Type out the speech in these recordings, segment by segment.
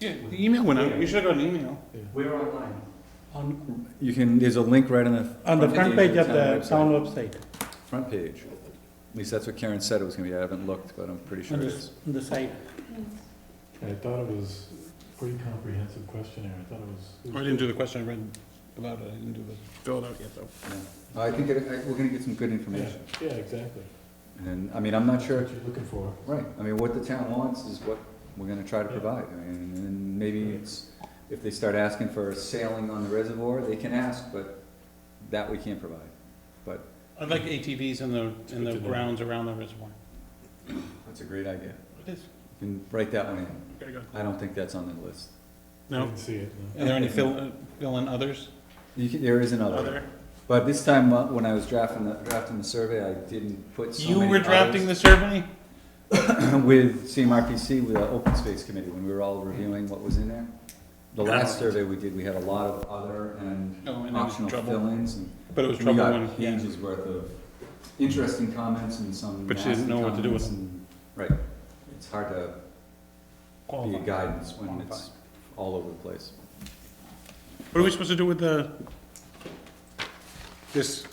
Yeah, the email went out, you should have got an email. We're online. On, You can, there's a link right on the. on the front page of the website. town website, Front page. At least that's what Karen said it was gonna be. I haven't looked, but I'm pretty sure on it the, is. on the site. I thought it was pretty comprehensive questionnaire, I thought it was. it I was didn't do the question, I read about it, I didn't do the, fill it out yet, though. Yeah. I think it- I- we're gonna get some good Yeah, information. yeah, exactly. And, I mean, I'm not sure, That's What you're looking for. right, I mean, what the town wants is what we're gonna try to provide. I mean, and maybe it's, if they start asking for sailing on the reservoir, they can ask, but that we can't provide. I'd like ATVs in the, in the Good to know. grounds around the reservoir. That's a great idea. It is. You can write that one in. Very good. I don't think that's on the list. I No, didn't see it, no. are there any fill, uh, fill in others? You can, there is another. Other? But this time, uh, when I was drafting the, drafting the survey, I didn't put so You many were drafting the others survey? With CMRPC, with the Open Space Committee, when we were all reviewing what was in there. The last survey we did, we had a lot of other and No, and it was optional trouble, fill-ins, and but it was we trouble when, got yeah. pages worth of interesting comments and some But you nasty didn't know what to do with comments, and, right, it's hard to be a Qualified. guidance when it's all over the place. What are we supposed to do with the, this,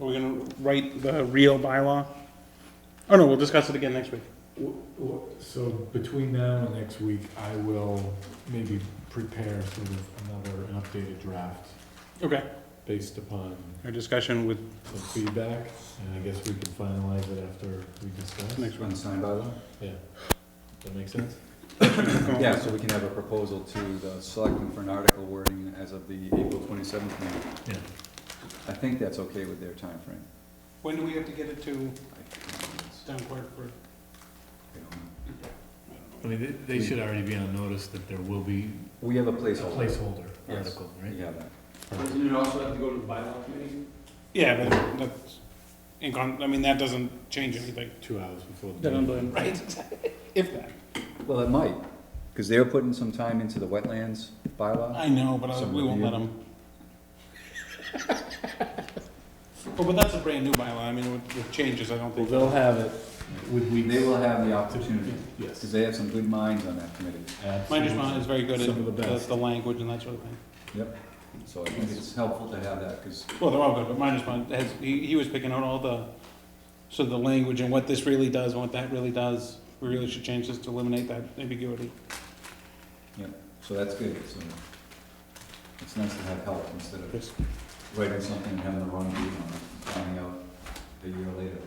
are we gonna write the real bylaw? Oh, no, we'll discuss it again next week. W- w- So between now and next week, I will maybe prepare sort of another, an updated draft Okay. based upon Our discussion with some feedback, and I guess we can finalize it after we discuss. next week. Unsigned bylaw? Yeah. That makes sense? Yeah, so we can have a proposal to the selectmen for an article wording as of the April twenty-seventh meeting. Yeah. I think that's okay with their timeframe. When do we have to get it to I town clerk for? don't know. I mean, they, they should already be on notice that there will be We have a a placeholder. placeholder Yes. article, right? Yeah, that. Doesn't it also have to go to the bylaw committee? Yeah, but that's, in con, I mean, that doesn't change anything. Two hours before the They're on meeting. the- Right. If that. Well, it might, because they're putting some time into the wetlands bylaw. I know, but I- we won't let them. Well, but that's a brand new bylaw, I mean, with, with changes, I don't Well, think. they'll have it with weeks. They will have the opportunity, Yes. because they have some good minds on that committee. My understanding is very good Some of the at the, best. the language and that sort of thing. Yep. So I think it's helpful to have that, because, Well, they're all good, but mine is fine. Has, he, he was picking out all the, so the language and what this really does and what that really does. We really should change this to eliminate that ambiguity. so that's good, so. It's nice to have help instead of Chris. writing something and having the wrong view on it, finding out a year later.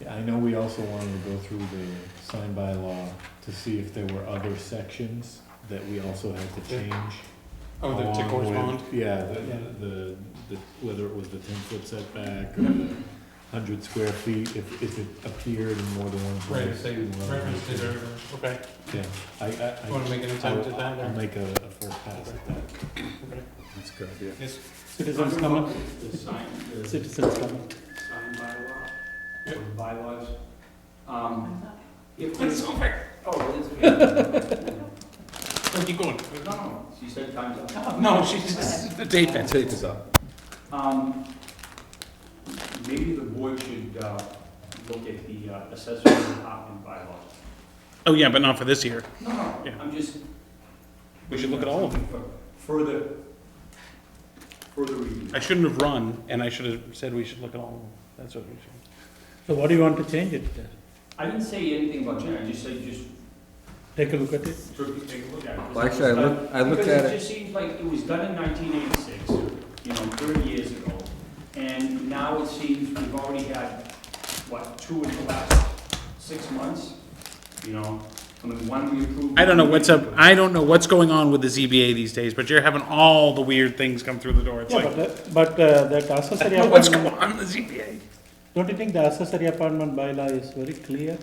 Yeah, I know we also wanted to go through the sign by law to see if there were other sections that we also had to change. Oh, the, along to with- correspond? Yeah, Yeah. the, the, the, whether it was the ten foot setback or the hundred square feet, if, if it appeared in more than one place. well, Okay, Yeah, I, I. I- you wanna make an attempt at that, I'll or? make a, a first pass at that. That's a good idea. Yes, Citizens comment, The sign, the sign citizens comment. bylaw, or Yep. the bylaws. Um, If it's there's, over, oh, it is. Oh, keep going. No, no, she said time's up. No, she's, the date fence. Tape is up. Um, Maybe the board should uh, look at the uh, assessor's department bylaws. Oh, yeah, but not for this year. No, no, Yeah. I'm just. We should look at all of them. Further, further review. I shouldn't have run, and I should have said we should look at all of them. That's what we should. So what do you want to change it? I didn't say anything about Jen, I just said just Take a look at it. took- take a look at it. Well, actually, I looked, I looked at Because it it, just seems like it was done in nineteen eighty-six, you know, thirty years ago, and now it seems we've already had, what, two in the last six months? You know, I mean, one we approved. I don't know what's up, I don't know what's going on with the ZBA these days, but you're having all the weird things come through the door. It's Yeah, like, but, the- but uh, that accessory what's going apartment, on with the ZBA? don't you think the accessory apartment bylaw is very clear?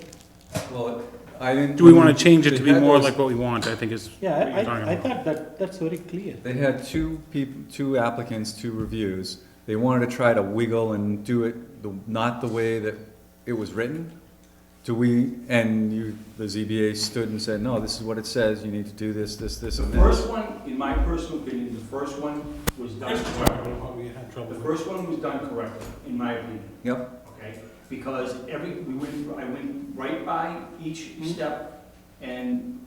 well, I didn't. Do we want to change it to be They had more those- like what we want, I think is. Yeah, what you're I- talking I, I about. thought that, that's very clear. They had two people, two applicants, two reviews. They wanted to try to wiggle and do it the, not the way that it was written. Do we, and you, the ZBA stood and said, no, this is what it says, you need to do this, this, this, The and first this. one, in my personal opinion, the first one was done correctly. The first one was done correctly, in my opinion. Yep, okay? Hmm? Because every, we went, I went right by each step, and